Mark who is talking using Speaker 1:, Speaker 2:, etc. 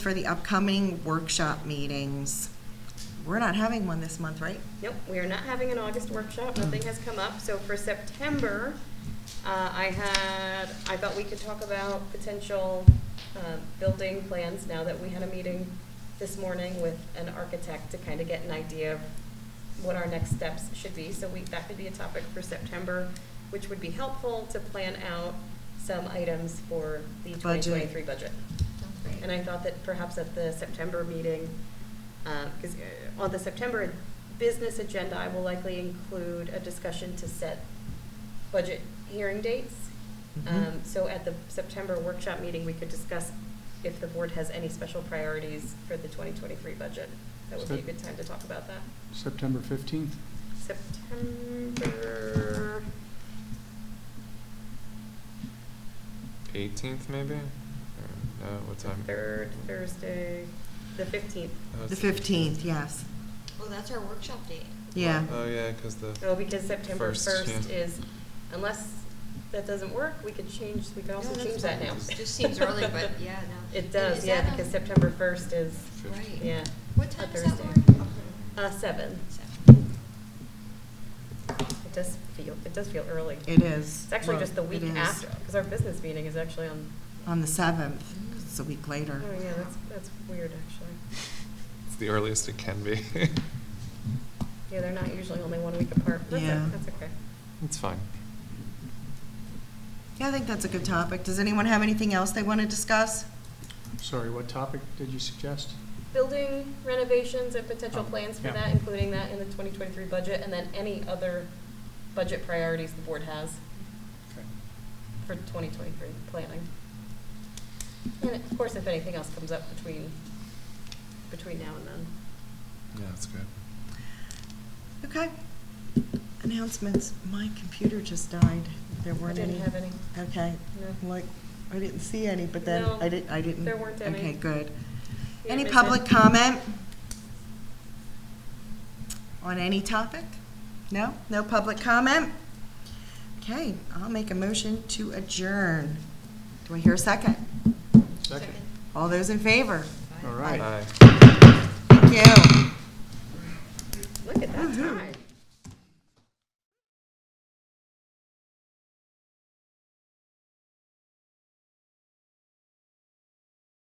Speaker 1: For the upcoming workshop meetings, we're not having one this month, right?
Speaker 2: Nope, we are not having an August workshop, nothing has come up, so for September, uh, I had, I thought we could talk about potential, uh, building plans now that we had a meeting this morning with an architect to kind of get an idea of what our next steps should be, so we, that could be a topic for September, which would be helpful to plan out some items for the
Speaker 1: Budget.
Speaker 2: twenty twenty-three budget. And I thought that perhaps at the September meeting, because Um, uh, on the September business agenda, I will likely include a discussion to set budget hearing dates. Um,
Speaker 1: Mhm.
Speaker 2: So at the September workshop meeting, we could discuss if the board has any special priorities for the 2023 budget. That would be a
Speaker 3: Sep-
Speaker 2: good time to talk about that.
Speaker 3: September 15th.
Speaker 2: September,
Speaker 4: eighteenth maybe? Or, no, what time?
Speaker 2: third Thursday, the 15th.
Speaker 4: Oh,
Speaker 1: The
Speaker 4: it's-
Speaker 1: fifteenth, yes,
Speaker 5: Well, that's our workshop date.
Speaker 1: yeah.
Speaker 4: Oh yeah, because the
Speaker 2: Oh, because September
Speaker 4: First,
Speaker 2: first
Speaker 4: yeah.
Speaker 2: is, unless that doesn't work, we could change, we could
Speaker 5: No,
Speaker 2: also
Speaker 5: that's
Speaker 2: change that
Speaker 5: fine.
Speaker 2: now.
Speaker 5: It just seems early, but yeah, no.
Speaker 2: It
Speaker 5: And
Speaker 2: does,
Speaker 5: is
Speaker 2: yeah,
Speaker 5: that
Speaker 2: because
Speaker 5: on-
Speaker 2: September first is,
Speaker 5: Right.
Speaker 2: yeah.
Speaker 5: What
Speaker 2: a
Speaker 5: time is that,
Speaker 2: Thursday.
Speaker 5: Lauren?
Speaker 2: Uh, seven.
Speaker 5: Seven.
Speaker 2: It does feel, it does feel early.
Speaker 1: It is.
Speaker 2: It's actually
Speaker 1: Well,
Speaker 2: just the week
Speaker 1: it is.
Speaker 2: after, because our business meeting is actually on,
Speaker 1: On the seventh, it's a week
Speaker 2: oh
Speaker 1: later.
Speaker 2: yeah, that's, that's weird, actually.
Speaker 4: it's the earliest it can be.
Speaker 2: Yeah, they're not usually only one week apart. That's,
Speaker 1: Yeah.
Speaker 2: o- that's okay.
Speaker 4: it's fine.
Speaker 1: Yeah, I think that's a good topic. Does anyone have anything else they want to discuss?
Speaker 3: Sorry, what topic did you suggest?
Speaker 2: Building renovations and potential
Speaker 3: Oh,
Speaker 2: plans for
Speaker 3: yeah.
Speaker 2: that, including that in the twenty twenty-three budget, and then any other budget priorities the board has. for 2023 planning. And of course, if anything else comes up between, between now and then.
Speaker 4: Yeah, that's good.
Speaker 1: Okay. Announcements. My computer just died. There
Speaker 2: I
Speaker 1: weren't any.
Speaker 2: didn't have any.
Speaker 1: Okay,
Speaker 2: No.
Speaker 1: like, I didn't see any, but then
Speaker 2: No,
Speaker 1: I didn't, I didn't.
Speaker 2: there weren't any.
Speaker 1: Okay, good.
Speaker 2: Yeah,
Speaker 1: Any
Speaker 2: make
Speaker 1: public
Speaker 2: sense.
Speaker 1: comment? On any topic? No? No public comment? Okay, I'll make a motion to adjourn. Do I hear a second?
Speaker 3: Second.
Speaker 1: All those in favor?
Speaker 3: All right.
Speaker 4: Bye.
Speaker 1: Thank you.
Speaker 2: Look at that time.